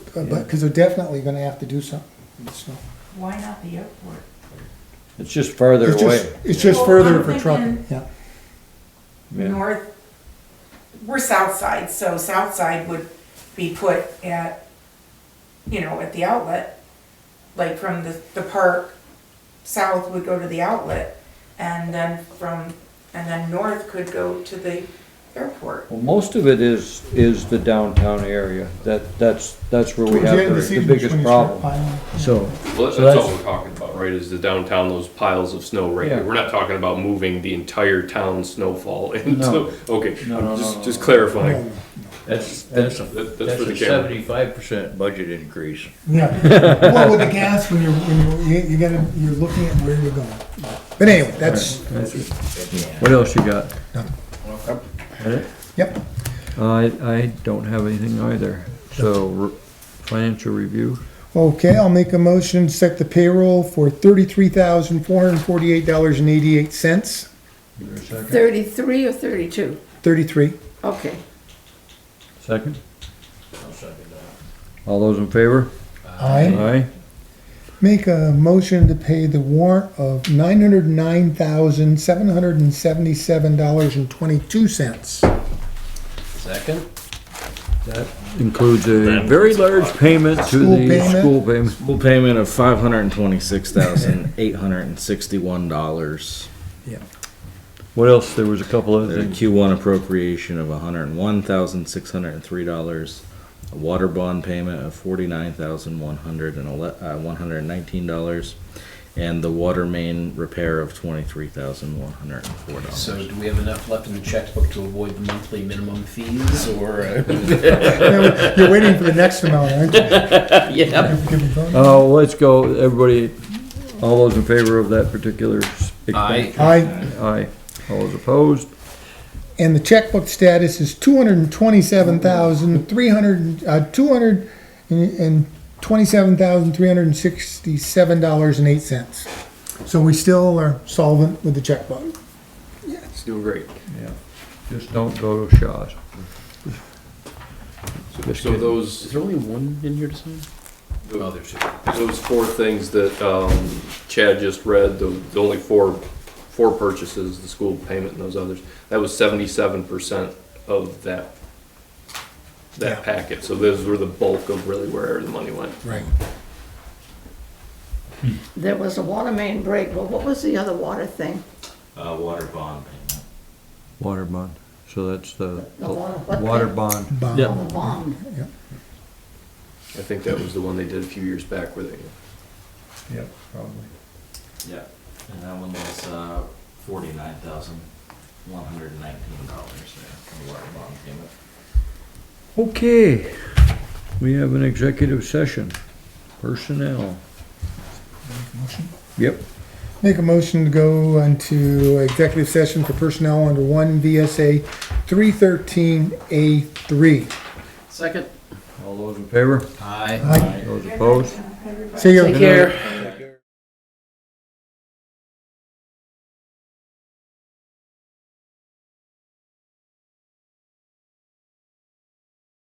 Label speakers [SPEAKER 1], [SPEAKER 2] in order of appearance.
[SPEAKER 1] But, because they're definitely gonna have to do something, so.
[SPEAKER 2] Why not the airport?
[SPEAKER 3] It's just farther
[SPEAKER 1] It's just-
[SPEAKER 3] away.
[SPEAKER 1] It's just
[SPEAKER 2] Well,
[SPEAKER 1] further
[SPEAKER 2] I'm
[SPEAKER 1] for trucking,
[SPEAKER 2] thinking-
[SPEAKER 1] yeah.
[SPEAKER 3] Yeah.
[SPEAKER 2] North, we're south side, so south side would be put at, you know, at the outlet. Like from the, the park, south would go to the outlet, and then from, and then north could go to the airport.
[SPEAKER 3] Well, most of it is, is the downtown area. That, that's, that's where we
[SPEAKER 1] Towards
[SPEAKER 3] have
[SPEAKER 1] end of
[SPEAKER 3] the- the
[SPEAKER 1] season is
[SPEAKER 3] biggest
[SPEAKER 1] when you start
[SPEAKER 3] problem.
[SPEAKER 1] piling.
[SPEAKER 3] So,
[SPEAKER 4] Well,
[SPEAKER 3] So
[SPEAKER 4] that's
[SPEAKER 3] that's-
[SPEAKER 4] all we're talking about, right, is the downtown, those piles of snow right
[SPEAKER 3] Yeah.
[SPEAKER 4] here. We're not talking about moving the entire town's snowfall into, okay,
[SPEAKER 3] No, no, no,
[SPEAKER 4] I'm just,
[SPEAKER 3] no,
[SPEAKER 4] just
[SPEAKER 3] no.
[SPEAKER 4] clarifying.
[SPEAKER 1] Yeah,
[SPEAKER 5] That's, that's a,
[SPEAKER 4] That- that's
[SPEAKER 5] that's
[SPEAKER 4] for the
[SPEAKER 5] a
[SPEAKER 4] camera.
[SPEAKER 5] seventy-five percent budget increase.
[SPEAKER 1] Yeah. well, with the gas, when you're, when you're, you- you gotta, you're looking at where you're going. But anyway, that's,
[SPEAKER 3] what else you got?
[SPEAKER 1] yep,
[SPEAKER 3] I, I don't have anything either. So, financial review?
[SPEAKER 1] okay, I'll make a motion, set the payroll for thirty-three thousand, four hundred and forty-eight dollars and eighty-eight cents,
[SPEAKER 6] Thirty-three or thirty-two?
[SPEAKER 1] thirty-three.
[SPEAKER 6] Okay.
[SPEAKER 3] Second? All those in favor?
[SPEAKER 1] Aye.
[SPEAKER 3] Aye.
[SPEAKER 1] Make a motion to pay the warrant of nine hundred and nine thousand, seven hundred and seventy-seven dollars and twenty-two cents.
[SPEAKER 5] Second?
[SPEAKER 3] Includes a very large payment to
[SPEAKER 1] School
[SPEAKER 3] the
[SPEAKER 1] payment?
[SPEAKER 3] school payment.
[SPEAKER 7] Full payment of five hundred and twenty-six thousand eight hundred and sixty-one dollars.
[SPEAKER 3] What else? There was a couple other
[SPEAKER 7] The
[SPEAKER 3] things.
[SPEAKER 7] Q one appropriation of hundred and one thousand six hundred and three dollars. A water bond payment of forty-nine thousand one hundred and ele- uh, one hundred and nineteen dollars. And the water main repair of twenty-three thousand one hundred and four dollars.
[SPEAKER 8] So do we have enough left in the checkbook to avoid the monthly minimum fees or? uh,
[SPEAKER 1] You're waiting for the next amount, aren't you? Yeah.
[SPEAKER 3] Oh, let's go, everybody, all those in favor of that particular s-
[SPEAKER 8] I,
[SPEAKER 3] expense?
[SPEAKER 1] Aye.
[SPEAKER 3] Aye. All those opposed?
[SPEAKER 1] And the checkbook status is two hundred and twenty-seven thousand, three hundred, uh, two hundred and twenty-seven thousand, three hundred and sixty-seven dollars and eight cents. So we still are solvent with the checkbook.
[SPEAKER 4] It's doing great.
[SPEAKER 3] Yeah. Just don't go to Shaw's.
[SPEAKER 4] So- So those,
[SPEAKER 8] there only one in here to sign? Oh, there's two.
[SPEAKER 4] those four things that, um, Chad just read, the, the only four, four purchases, the school payment and those others, that was seventy-seven percent of that,
[SPEAKER 1] Yeah.
[SPEAKER 4] that packet. So those were the bulk of really where the money went.
[SPEAKER 1] Right.
[SPEAKER 6] There was a water main break, but what was the other water thing?
[SPEAKER 7] Uh, water bond payment.
[SPEAKER 3] Water bond. So that's the
[SPEAKER 6] The water- what
[SPEAKER 3] water
[SPEAKER 6] thing?
[SPEAKER 3] bond.
[SPEAKER 1] Bob.
[SPEAKER 6] On the bond.
[SPEAKER 4] I think that was the one they did a few years back where they,
[SPEAKER 3] Yep, probably.
[SPEAKER 7] Yeah, and that one was, uh, forty-nine thousand one hundred and nineteen dollars for the water bond payment.
[SPEAKER 3] Okay, we have an executive session. Personnel. Yep.
[SPEAKER 1] Make a motion to go into executive session for personnel under one VSA three thirteen A three.
[SPEAKER 8] Second?
[SPEAKER 3] All those in favor?
[SPEAKER 8] Aye.
[SPEAKER 3] Those opposed?
[SPEAKER 1] Say your.
[SPEAKER 6] Take care.